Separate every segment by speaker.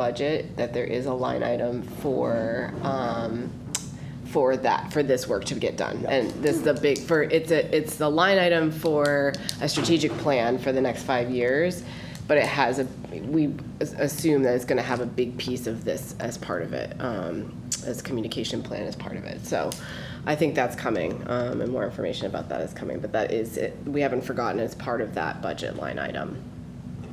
Speaker 1: budget, that there is a line item for, um, for that, for this work to get done. And this is a big, for, it's a, it's the line item for a strategic plan for the next five years, but it has a, we as- assume that it's gonna have a big piece of this as part of it, um, as communication plan as part of it. So I think that's coming, um, and more information about that is coming, but that is, it- we haven't forgotten, it's part of that budget line item.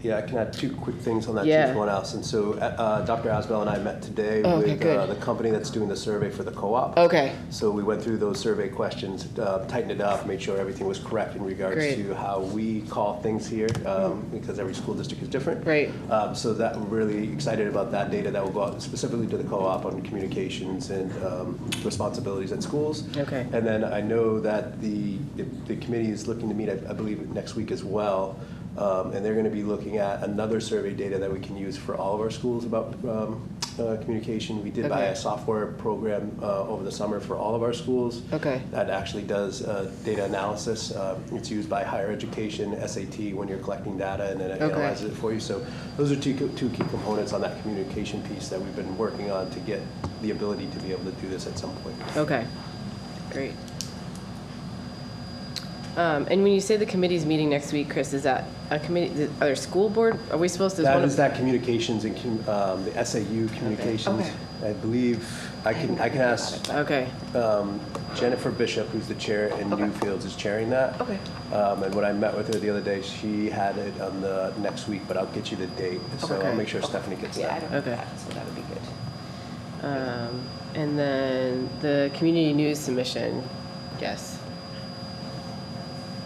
Speaker 2: Yeah, I can add two quick things on that
Speaker 1: Yeah. Oh,
Speaker 2: too, someone else. And so uh, uh, Dr. Asbell and I met today
Speaker 1: Okay,
Speaker 2: with uh,
Speaker 1: good.
Speaker 2: the company that's doing the survey for the co-op.
Speaker 1: Okay.
Speaker 2: So we went through those survey questions, uh, tightened it up, made sure everything was correct in regards
Speaker 1: Great. Mm.
Speaker 2: to how we call things here, um, because every school district is different.
Speaker 1: Right.
Speaker 2: Um, So that, we're really excited about that data that will go out specifically to the co-op on communications and um, responsibilities at schools.
Speaker 1: Okay.
Speaker 2: And then I know that the, the- the committee is looking to meet, I I believe, next week as well. Um, And they're going to be looking at another survey data that we can use for all of our schools about um, uh, communication. We did buy
Speaker 1: Okay.
Speaker 2: a software program uh, over the summer for all of our schools.
Speaker 1: Okay.
Speaker 2: That actually does uh, data analysis. Uh, It's used by higher education, SAT, when you're collecting data and then it
Speaker 1: Okay.
Speaker 2: analyzes it for you. So those are two, co- two key components on that communication piece that we've been working on to get the ability to be able to do this at some point.
Speaker 1: Okay, great. Um, and when you say the committee's meeting next week, Chris, is that a committee, are there school board, are we supposed to?
Speaker 2: That is that communications and com- um, the SAU communications. I believe, I can, I can ask
Speaker 1: Okay,
Speaker 2: um, Jennifer Bishop, who's the chair in Newfields, is chairing that.
Speaker 1: Okay.
Speaker 2: Um, And when I met with her the other day, she had it on the next week, but I'll get you the date. So
Speaker 1: Okay.
Speaker 2: I'll make sure Stephanie gets
Speaker 3: Yeah, I
Speaker 2: that.
Speaker 3: don't know
Speaker 1: Okay.
Speaker 3: that, so that would be good.
Speaker 1: um, and then the community news submission, yes.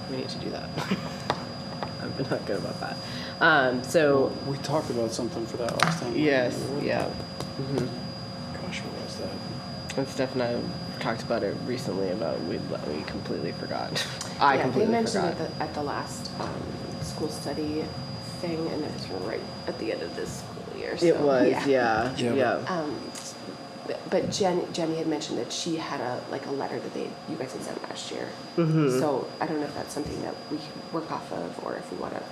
Speaker 1: We need to do that. I'm not good about that. Um, so,
Speaker 4: We talked about something for that last time.
Speaker 1: yes, yeah.
Speaker 4: Gosh, what was that?
Speaker 1: And Steph and I talked about it recently about we, we completely forgot. I
Speaker 3: Yeah,
Speaker 1: completely forgot.
Speaker 3: They mentioned it at the, at the last um, school study thing, and it was right at the end of this school year. So,
Speaker 1: It was, yeah,
Speaker 4: Yeah.
Speaker 1: yeah.
Speaker 3: Um, but- but Jen, Jenny had mentioned that she had a like a letter that they you guys had sent last year.
Speaker 1: Mm-hmm.
Speaker 3: So I don't know if that's something that we can work off of, or if we want to.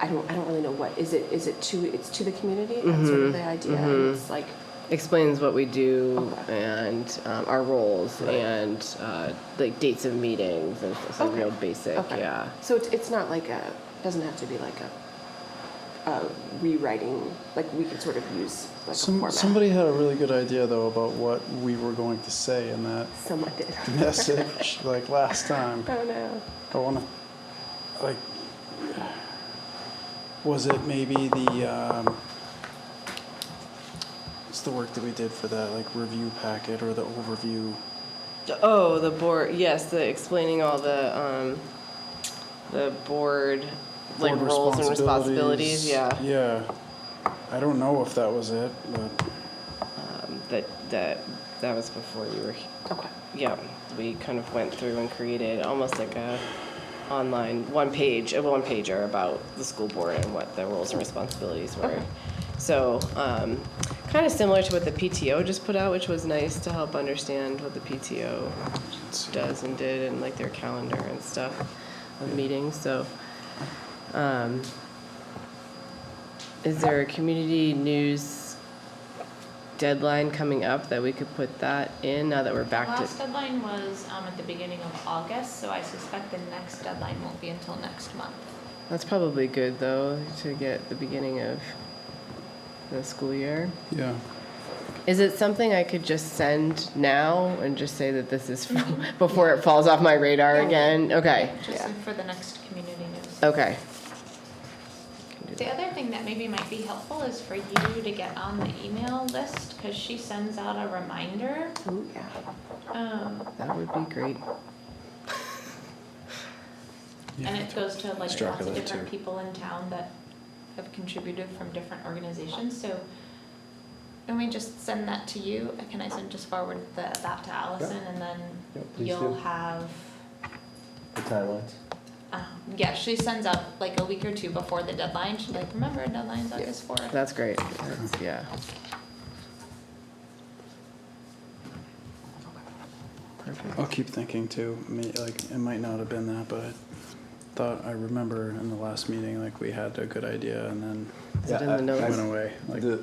Speaker 3: I don't. I don't really know what is it. Is it to? It's to the community. That's
Speaker 1: Mm-hmm.
Speaker 3: sort of the idea. And it's like
Speaker 1: Explains what we do
Speaker 3: Okay.
Speaker 1: and um, our roles and uh, like dates of meetings and stuff, so
Speaker 3: Okay.
Speaker 1: real basic,
Speaker 3: Okay.
Speaker 1: yeah.
Speaker 3: So it's, it's not like a, doesn't have to be like a, a rewriting, like we could sort of use like a
Speaker 4: Some,
Speaker 3: format.
Speaker 4: somebody had a really good idea though about what we were going to say in that
Speaker 3: Someone did.
Speaker 4: message like last time.
Speaker 3: Oh no.
Speaker 4: I want to, like, was it maybe the, um, it's the work that we did for that like review packet or the overview?
Speaker 1: Oh, the board, yes, the explaining all the, um, the board, like
Speaker 4: board
Speaker 1: roles and responsibilities, yeah.
Speaker 4: Yeah. I don't know if that was it, but
Speaker 1: Um, That, that, that was before you were, he-
Speaker 3: Okay.
Speaker 1: yeah, we kind of went through and created almost like a online one page, a one pager about the school board and what their roles and responsibilities were. So, um, kind of similar to what the PTO just put out, which was nice to help understand what the PTO does and did and like their calendar and stuff of meetings. So, um, is there a community news deadline coming up that we could put that in now that we're back to?
Speaker 5: Last deadline was um, at the beginning of August, so I suspect the next deadline won't be until next month.
Speaker 1: That's probably good though to get the beginning of the school year.
Speaker 4: yeah.
Speaker 1: Is it something I could just send now and just say that this is before it falls off my radar again? Okay.
Speaker 5: Just
Speaker 3: Yeah.
Speaker 5: for the next community news.
Speaker 1: Okay.
Speaker 5: The other thing that maybe might be helpful is for you to get on the email list because she sends out a reminder.
Speaker 3: Ooh, yeah.
Speaker 5: Um,
Speaker 1: That would be great.
Speaker 5: and it goes to like lots
Speaker 2: Struck
Speaker 5: of
Speaker 2: with it,
Speaker 5: different
Speaker 2: too.
Speaker 5: people in town that have contributed from different organizations. So let me just send that to you. Can I send just forward the, that to Allison and then
Speaker 2: Yeah, please
Speaker 5: you'll
Speaker 2: do.
Speaker 5: have
Speaker 2: The timelines.
Speaker 5: Um, yeah, she sends out like a week or two before the deadline. She's like, remember, deadline's August fourth.
Speaker 1: That's great. That's, yeah. Perfect.
Speaker 4: I'll keep thinking too. May, like it might not have been that, but thought I remember in the last meeting, like we had a good idea and then
Speaker 1: Is it in the
Speaker 2: Yeah, I-
Speaker 1: notes?
Speaker 4: it went away. Like
Speaker 2: The-